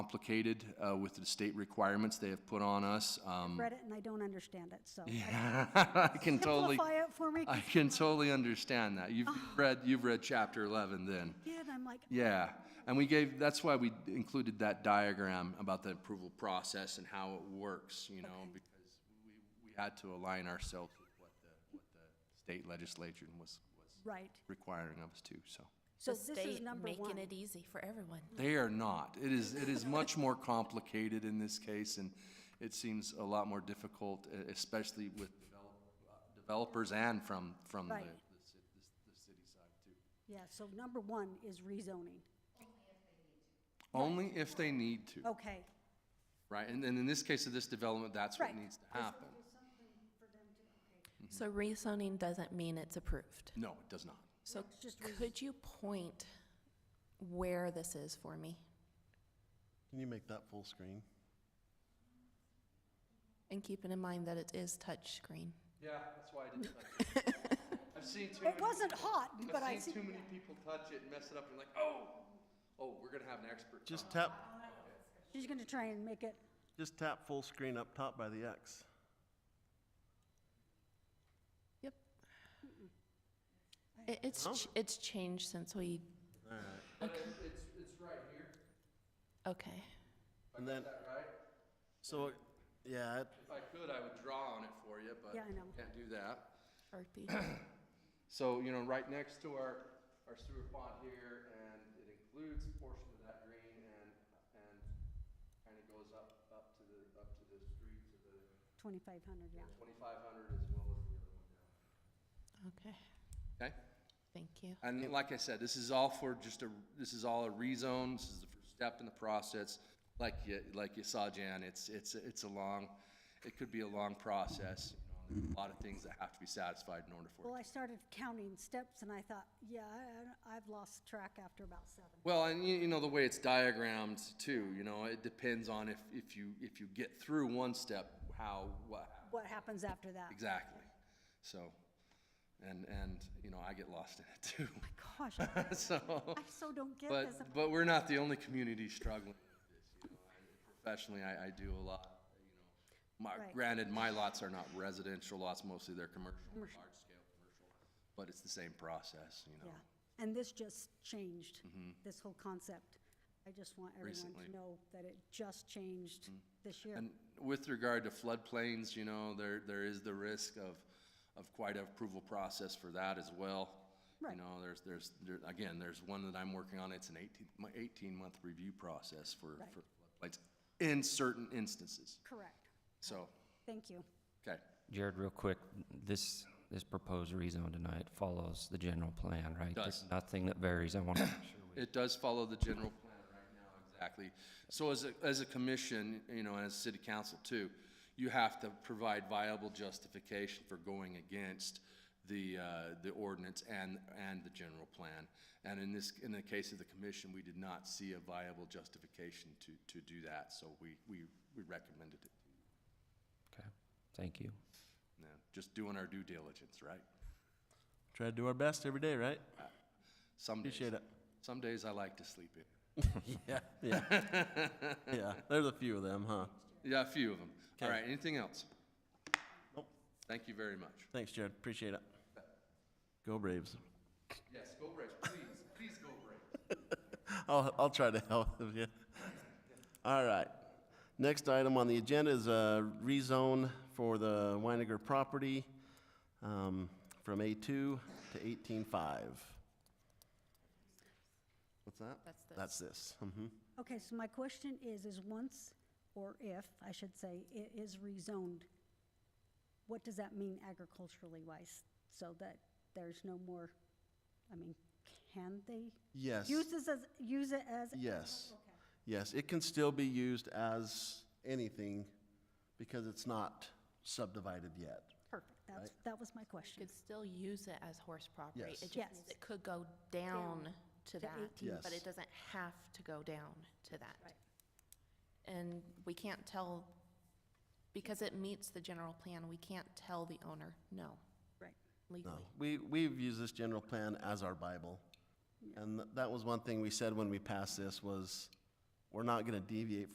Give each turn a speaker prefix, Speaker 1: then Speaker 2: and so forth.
Speaker 1: complicated uh, with the state requirements they have put on us. Um,
Speaker 2: read it and I don't understand it, so.
Speaker 1: I can totally,
Speaker 2: Simplify it for me,
Speaker 1: I can totally understand that. You've read, you've read chapter 11 then.
Speaker 2: kid, I'm like,
Speaker 1: Yeah, and we gave, that's why we included that diagram about the approval process and how it works, you know, because we, we had to align ourselves with what the, what the state legislature was, was
Speaker 2: right.
Speaker 1: requiring of us to, so.
Speaker 2: So
Speaker 3: The
Speaker 2: this is
Speaker 3: state
Speaker 2: number one.
Speaker 3: making it e- easy for everyone.
Speaker 1: They are not. It is, it is much more complicated in this case, and it seems a lot more difficult, e- especially with develop- developers and from, from Mm. the,
Speaker 2: Right. Yeah, so number one is rezoning.
Speaker 1: only if they need to,
Speaker 2: Okay,
Speaker 1: right? And then in this case of this development, that's what
Speaker 2: Right.
Speaker 1: needs to happen.
Speaker 3: So rezoning doesn't mean it's approved.
Speaker 1: No, it does not.
Speaker 3: So could you point where this is for me?
Speaker 4: Can you make that full screen?
Speaker 3: And keeping in mind that it is touchscreen.
Speaker 1: Yeah, that's why I didn't touch it. I've seen too many.
Speaker 2: it wasn't hot, but I
Speaker 1: I've
Speaker 2: see,
Speaker 1: seen too many people touch it and mess it up and like, oh, oh, we're gonna have an expert.
Speaker 4: Just tap,
Speaker 2: she's gonna try and make it,
Speaker 4: just tap full screen up top by the X.
Speaker 3: Yep. It, it's, ch- it's changed since we,
Speaker 4: All right.
Speaker 1: But it's, it's, it's right here,
Speaker 3: okay.
Speaker 4: And then,
Speaker 1: right?
Speaker 4: so, it- yeah, it-
Speaker 1: If I could, I would draw on it for you, but
Speaker 2: Yeah, I know.
Speaker 1: can't do that.
Speaker 3: Sharpie.
Speaker 1: So, you know, right next to our, our sewer pond here, and it includes a portion of that green and, and kind of goes up, up to the, up to the street, to the
Speaker 2: twenty-five hundred, yeah.
Speaker 1: twenty-five hundred as well as the other one down.
Speaker 3: Okay,
Speaker 1: Okay,
Speaker 3: thank you.
Speaker 1: and like I said, this is all for just a, this is all a rezone, this is the first step in the process. Like you, like you saw, Jan, it's, it's, it's a long, it could be a long process, you know, and there's a lot of things that have to be satisfied in order for it to
Speaker 2: Well, I started counting steps and I thought, yeah, I, I- I've lost track after about seven.
Speaker 1: Well, and you, you know, the way it's diagrammed too, you know, it depends on if, if you, if you get through one step, how, what,
Speaker 2: What happens after that?
Speaker 1: exactly. So, and, and, you know, I get lost in it
Speaker 2: Gosh, I
Speaker 1: too. So,
Speaker 2: so don't get
Speaker 1: but,
Speaker 2: this.
Speaker 1: but we're not the only community struggling with this, you know. I- Professionally, I, I do a lot, you know. My,
Speaker 2: Right.
Speaker 1: granted, my lots are not residential lots, mostly they're commercial, large scale commercial, but it's the same process, you know.
Speaker 2: Yeah, and this just changed, this whole concept. I just want everyone
Speaker 1: Recently.
Speaker 2: to know that it just changed this year.
Speaker 1: And with regard to floodplains, you know, there, there is the risk of, of quite an approval process for that as well. You
Speaker 2: Right.
Speaker 1: know, there's, there's, there, again, there's one that I'm working on, it's an eighteen, my eighteen-month review process for, for floodplains in certain instances,
Speaker 2: Correct,
Speaker 1: so,
Speaker 2: thank you.
Speaker 1: okay.
Speaker 5: Jared, real quick, this, this proposed rezone tonight follows the general plan, right?
Speaker 1: Does.
Speaker 5: There's Nothing that varies, I want to make sure we
Speaker 1: It does follow the general plan right now, exactly. So as a, as a commission, you know, and as city council too, you have to provide viable justification for going against the, uh, the ordinance and, and the general plan. And in this, in the case of the commission, we did not see a viable justification to, to do that, so we, we, we recommended it.
Speaker 5: Okay, thank you.
Speaker 1: Yeah, Just doing our due diligence, right?
Speaker 4: try to do our best every day, right?
Speaker 1: Some days,
Speaker 4: Appreciate it.
Speaker 1: some days I like to sleep in.
Speaker 4: Yeah, yeah. Yeah, there's a few of them, huh?
Speaker 1: Yeah, a few of them. All
Speaker 4: Okay.
Speaker 1: right, anything else?
Speaker 4: Nope.
Speaker 1: Thank you very much.
Speaker 4: Thanks, Jared, appreciate it. Go Braves.
Speaker 1: Yes, go Braves, please, please go Braves.
Speaker 4: I'll, I'll try to help you. All right. Next item on the agenda is a rezone for the Weiniger property um, from A2 to 18.5. What's that?
Speaker 3: That's this.
Speaker 4: That's this. Mhm.
Speaker 2: Okay, so my question is, is once, or if, I should say, it is rezoned, what does that mean agriculturally wise? So that there's no more, I mean, can they?
Speaker 4: Yes.
Speaker 2: Use this as, use it as?
Speaker 4: Yes. Yes, it can still be used as anything because it's not subdivided yet.
Speaker 2: Perfect, that's, that was my question.
Speaker 3: Could still use it as horse property.
Speaker 4: Yes.
Speaker 3: It just
Speaker 2: Yes.
Speaker 3: means it could go down to
Speaker 2: eighteen.
Speaker 3: that, but
Speaker 4: Yes.
Speaker 3: it doesn't have to go down to that. And we can't tell, because it meets the general plan, we can't tell the owner, no,
Speaker 2: Right.
Speaker 4: No,
Speaker 3: legally.
Speaker 4: we, we've used this general plan as our Bible. And th- that was one thing we said when we passed this was, we're not gonna deviate